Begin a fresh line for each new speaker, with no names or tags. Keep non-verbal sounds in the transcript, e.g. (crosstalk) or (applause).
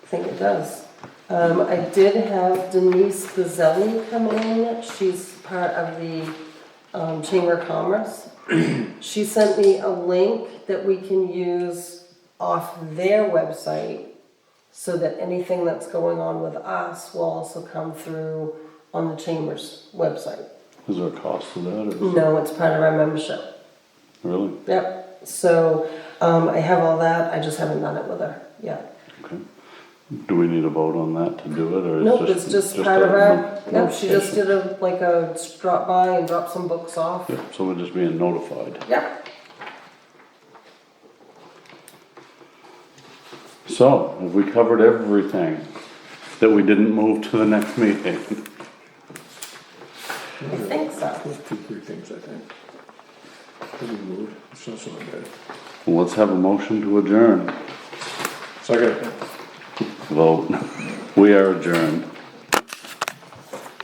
think it does. Um, I did have Denise Gazzelli come in, she's part of the, um, Chamber of Commerce. (clears throat) She sent me a link that we can use off their website so that anything that's going on with us will also come through on the Chamber's website.
Is there a cost to that or is it
No, it's part of our membership.
really?
Yep, so, um, I have all that, I just haven't done it with her yet.
Okay. Do we need a vote on that to do it or? it's
Nope, it's just part
a
of our,
no-
yep, she just did a, like a drop by and drop some books off.
Yep, so we're just being notified.
Yep,
So, have we covered everything that we didn't move to the next meeting?
I think so.
Those two, three things, I think. Pretty rude, it's not so bad.
Well, Let's have a motion to adjourn.
So I gotta.
Vote. (laughs) We are adjourned.